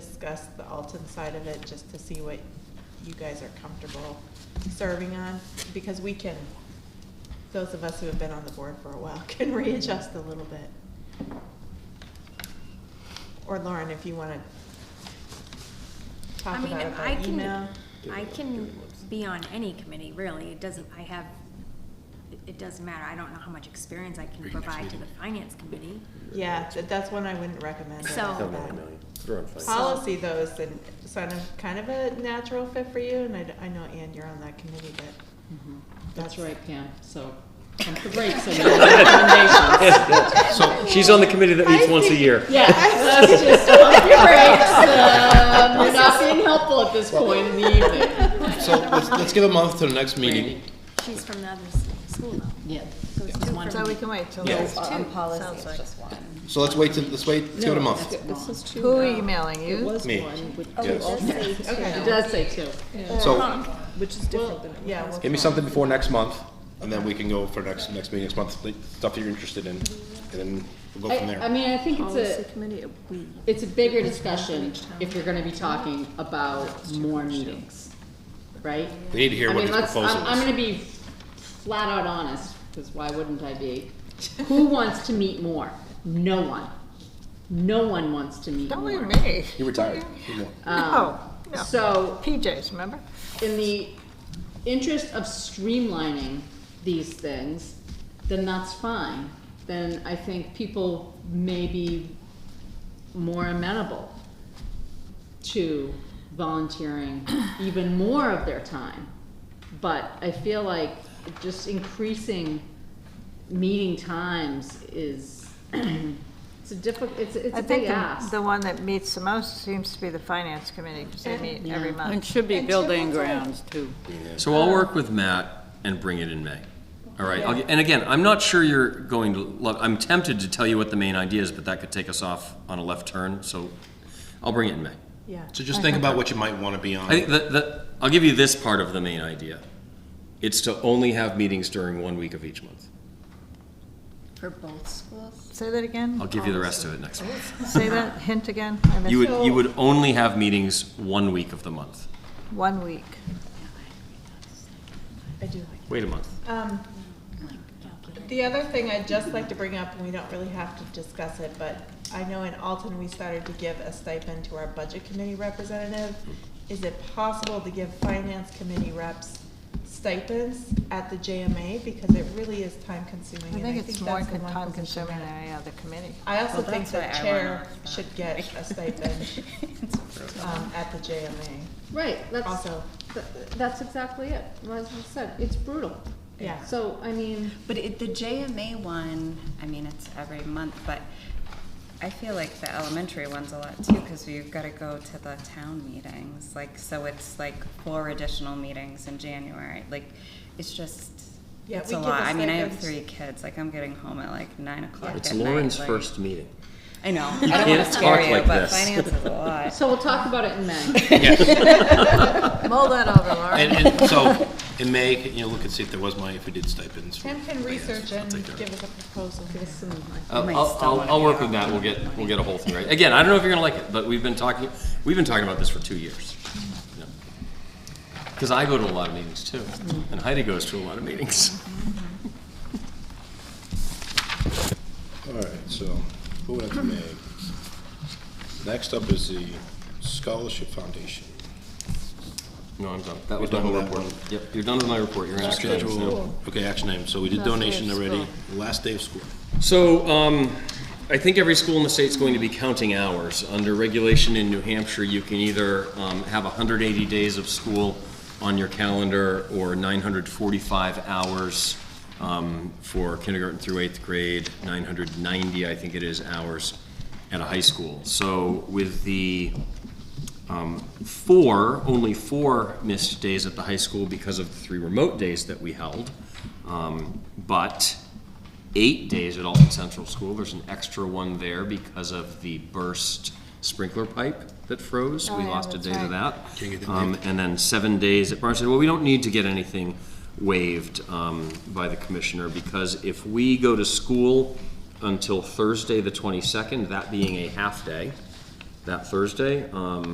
discuss the Alton side of it, just to see what you guys are comfortable serving on, because we can, those of us who have been on the board for a while can readjust a little bit. Or Lauren, if you want to talk I mean, about it I by can, email. I can be on any committee, really. It doesn't, I have, it- it doesn't matter. I don't know how much experience I can Maybe next provide to the meeting. finance committee. Yeah, th- that's one I wouldn't recommend. right So- off the No, bat. no, no, they're on fire. Policy though is an, it's kind of, kind of a natural fit for you, and I, d- I know, Ann, you're on that committee, but Mhm. That's right, Pam, so pump the brakes on your recommendations. She's on the committee that meets once a year. Yeah, let's just pump your brakes, um, you're not being helpful at this point in the evening. So let's, let's give a month to the next meeting. She's from the other s- school though. Yeah. So it's two So we from, can wait till Yeah. those On two, policy, sounds it's like. just one. So let's wait till, let's wait, let's give it a month. This is two. Who are you emailing It you? was Me. one with Oh, two it does alternates. say Okay. It does say two, Uh-huh. So which is different than. yeah. we'll give me try. something before next month, and then we can go for next, next meeting next month, like, stuff that you're interested in, and then we'll go from I, I there. mean, I think it's a, it's a bigger discussion if you're gonna be talking about more meetings, right? We need to hear I what mean, his let's, I'm, I'm proposal gonna is. be flat out honest, because why wouldn't I be? Who wants to meet more? No one. No one wants to meet Don't leave more. Um, Oh, me. You retired. You know. No, Um, no. So, PJs, remember? in the interest of streamlining these things, then that's fine. Then I think people may be more amenable to volunteering even more of their time. But I feel like just increasing meeting times is, it's a difficult, it's, it's I a big think ask. the- the one that meets the most seems to be the finance committee, because they meet every And month. should be building grounds too. So I'll work with Matt and bring it in May. All right, I'll- and again, I'm not sure you're going to love, I'm tempted to tell you what the main idea is, but that could take us off on a left turn, so I'll bring it in May. Yeah, So just think about what you might wanna be on. I think that, that, I'll give you this part of the main idea. It's to only have meetings during one week of each month. For both schools? Say that again? I'll give you the rest of it next month. Say that hint again? I missed You it. would, you would only have meetings one week of the month. One week. I do like Wait a month. it. Um, the other thing I'd just like to bring up, and we don't really have to discuss it, but I know in Alton, we started to give a stipend to our budget committee representative. Is it possible to give finance committee reps stipends at the JMA? Because it really is time consuming. I and think it's more that's the one time position consuming that- than any other committee. I also Well, think that's the why I chair wanna stop. should get a stipend um, at the JMA. Right, that's, Also- th- that's exactly it, as I said, it's brutal. Yeah. So, I mean, But it, the JMA one, I mean, it's every month, but I feel like the elementary one's a lot too, because we've got to go to the town meetings, like, so it's like four additional meetings in January, like, it's just, Yeah, it's we a give lot. us I mean, I have stipends. three kids, like, I'm getting home at like nine o'clock It's at night, Lauren's like- first meeting. I know, I You don't want can't to scare talk you, like but this. finance is a lot. so we'll talk about it in May. Mull that over, Lauren. And, and so, in May, you know, look and see if there was money, if we did stipends. for- Tim can but yes, research I'll and take that. give us a proposal. I'll, might I'll, still I'll, wanna I'll be work out. with Matt. We'll get we'll get a whole thing right. Again, I don't know if you're gonna like it, but we've been talking we've been talking about this for two years. Because I go to a lot of meetings too, Mm-hmm. and Heidi goes to a lot of meetings. All right, so moving on to May. Next up is the Scholarship Foundation. No, I'm done. That was my You're done whole with that report. one? Yep, you're done with my report. You're in action items now. Schedule, okay, action item. So we did donation already, last day of school. So, um, I think every school in the state's going to be counting hours. Under regulation in New Hampshire, you can either, um, have hundred eighty days of school on your calendar or nine hundred forty-five hours, um, for kindergarten through eighth grade, nine hundred ninety, I think it is, hours at a high school. So with the, um, four, only four missed days at the high school because of the three remote days that we held. Um, but eight days at Alton Central School. There's an extra one there because of the burst sprinkler pipe that froze. We lost a day to that. Um, and then seven days at Barnstable. Well, we don't need to get anything waived, um, by the commissioner because if we go to school until Thursday, the twenty-second, that being a half day, that Thursday, um,